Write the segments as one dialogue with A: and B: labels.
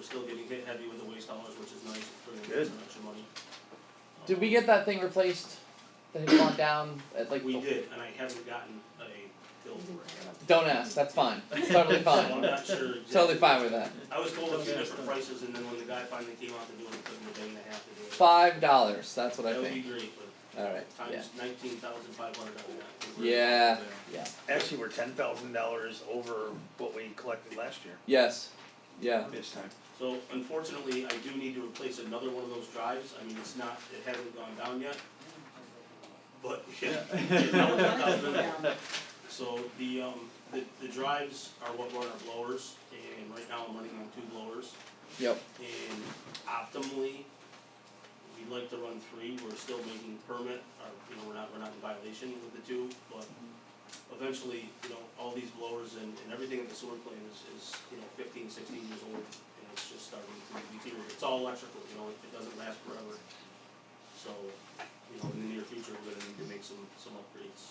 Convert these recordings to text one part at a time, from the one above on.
A: still getting hit heavy with the waste dollars, which is nice, putting in
B: Good.
A: some extra money. Um,
C: Did we get that thing replaced? That had gone down at like
A: We
C: the-
A: did, and I haven't gotten a bill for it.
C: Don't ask, that's fine. Totally
A: So I'm
C: fine.
A: not sure. exactly.
C: totally fine with that.
A: I was told a few different prices, and then when the guy finally came out to do it, it took him a day and a half to do it.
C: Five dollars, that's what I
A: That would be
C: think.
A: great, but
C: Alright, yeah.
A: times nineteen thousand five hundred, I would not.
C: Yeah. Yeah.
B: Actually, we're ten thousand dollars over what we collected last year.
C: Yes. Yeah.
B: This time.
A: So unfortunately, I do need to replace another one of those drives, I mean, it's not, it hasn't gone down yet. But, yeah, it's not gone down. So the um, the the drives are what run our blowers, and right now I'm running on two blowers.
C: Yep.
A: And optimally, we'd like to run three, we're still making permit, or, you know, we're not, we're not in violation with the two, but eventually, you know, all these blowers and, and everything at the sewer plant is, is, you know, fifteen, sixteen years old, and it's just starting to deteriorate, it's all electrical, you know, it, it doesn't last forever. So, you know, in the near future, we're gonna need to make some, some upgrades.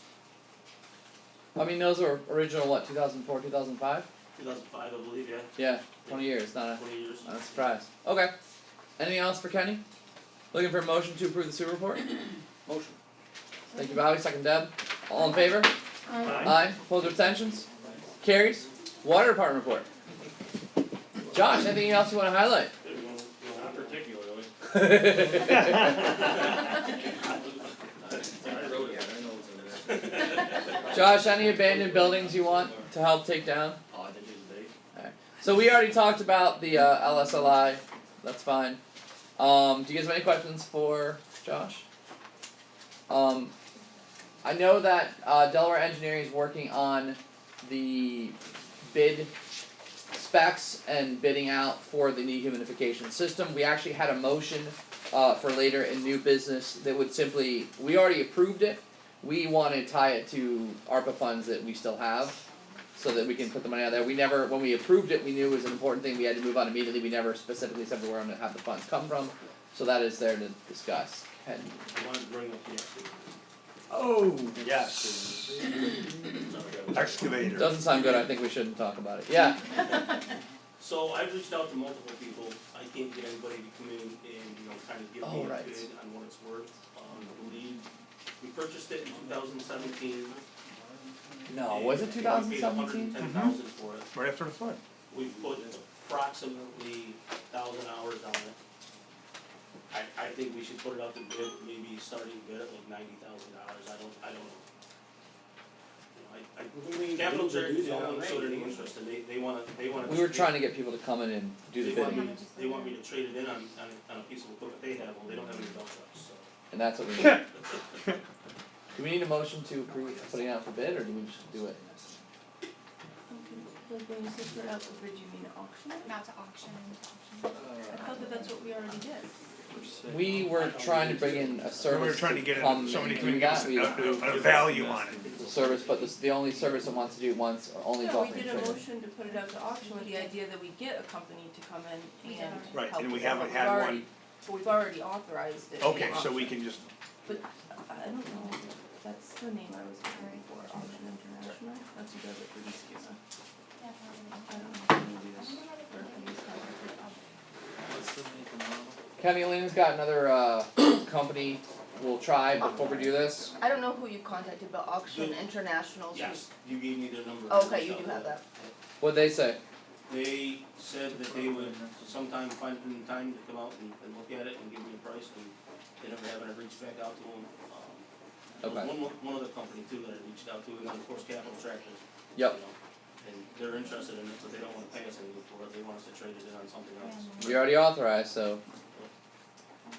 C: I mean those were original what, two thousand four, two thousand five?
A: Two thousand five, I believe, yeah,
C: Yeah, twenty years, not a
A: twenty years.
C: not a surprise. Okay. Anything else for Kenny? Looking for a motion to approve the sewer report?
B: Motion.
C: Thank you, Bobby, second Deb. All in favor?
B: Aye.
C: Aye, opposed or abstentions? Carries. Water department report. Josh, anything else you wanna highlight?
A: Not particularly.
D: I wrote it, I know it's in there.
C: Josh, any abandoned buildings you want to help take down?
D: Oh, I think it's big.
C: So we already talked about the uh, LSLI. That's fine. Um, do you guys have any questions for Josh? Um, I know that uh, Delaware Engineering is working on the bid specs and bidding out for the dehumidification system. We actually had a motion uh, for later in new business that would simply we already approved it. We want to tie it to ARPA funds that we still have so that we can put the money out there. We never, when we approved it, we knew it was an important thing we had to move on immediately. We never specifically said where I'm gonna have the funds come from. So that is there to discuss. And
A: I wanted to bring up the excavator.
B: Oh, yes, excavator.
C: doesn't sound good, I think we shouldn't talk about it. Yeah,
A: So I've reached out to multiple people, I can't get anybody to come in and, you know, kind of give
C: Oh,
A: me a
C: right.
A: bid on what it's worth. Um, I believe, we purchased it in two thousand seventeen.
C: no, Oh, was it two thousand
A: We
C: seventeen?
A: paid a hundred and ten thousand for it,
B: Right after the flood.
A: we've put approximately thousand hours on it. I, I think we should put it out to bid, maybe starting bid at like ninety thousand dollars, I don't, I don't know. You know, I, I Capital Church is only showed any interest and they, they wanna, they wanna.
C: We were trying to get people to come in and do the
A: They want
C: bidding,
A: me, they want me to trade it in on, on, a- on a piece of equipment they have, well, they don't have any dump trucks, so.
C: and that's what we need. Do we need a motion to approve putting out for bid, or do we just do it?
E: Like when you say put out the bid, you mean auction it?
F: Not to auction.
B: Uh,
E: I thought that that's what we already did.
C: We were trying to bring in
B: We
C: a
B: were
C: service
B: trying to
C: to
B: get
C: come
B: it, somebody
C: and
B: can
C: we
B: give us
C: got,
B: a,
C: we approved
B: a, a value on it.
C: the service, but this, the only service that wants to do it once, or only is
E: No, we
C: offering
E: did
C: trade.
E: a motion to put it out to auction with the idea that we get a company to come in
F: We
E: and
F: did
E: help.
F: already.
B: Right, and we
E: us out.
B: haven't
E: We've
B: had
E: already-
B: one.
E: But we've already authorized it. in
B: Okay, so
E: auction.
B: we can just,
E: I don't know, that's the name I was looking for, Auction International, that's who does it for these kids. I don't know if they do this or if they use that.
C: Kenny Lena's got another uh company we'll try before we do this.
E: I don't know who you contacted, but Auction
A: Good.
E: International's. who-
A: Yes, you gave me their number.
E: Okay, you do have that.
C: What'd they say?
A: They said that they would sometime find the time to come out and, and look at it and give me a price, and they never have, and I reached back out to them, um. there was
C: Okay.
A: One, mo- one other company too that I reached out to, and then of course Capital Tractors. you
C: Yep.
A: know, And they're interested in it, but they don't wanna pay us anything for it, they want us to trade it in on something else.
C: We already authorized, so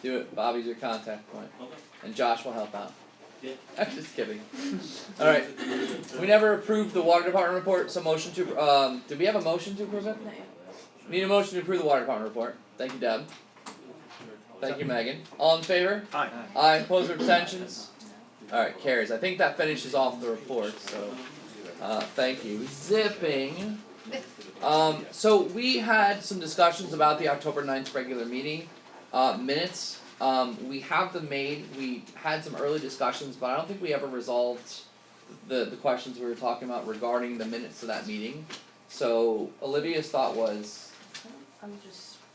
C: do it. Bobby's your contact point,
A: Okay,
C: and Josh will help out.
A: Yeah.
C: I'm just kidding. All right. We never approved the water department report, so motion to um. Did we have a motion to approve it?
E: Not yet.
C: Need a motion to approve the water department report. Thank you, Deb. Thank you, Megan. All in favor?
B: aye.
C: Aye. Opposed or abstentions? All right, carries. I think that finishes off the report. So. Uh, thank you. Zipping. Um, so we had some discussions about the October 9th regular meeting, uh, minutes. Um, we have them made, we had some early discussions, but I don't think we ever resolved the, the questions we were talking about regarding the minutes of that meeting. So Olivia's thought was,
E: I'm just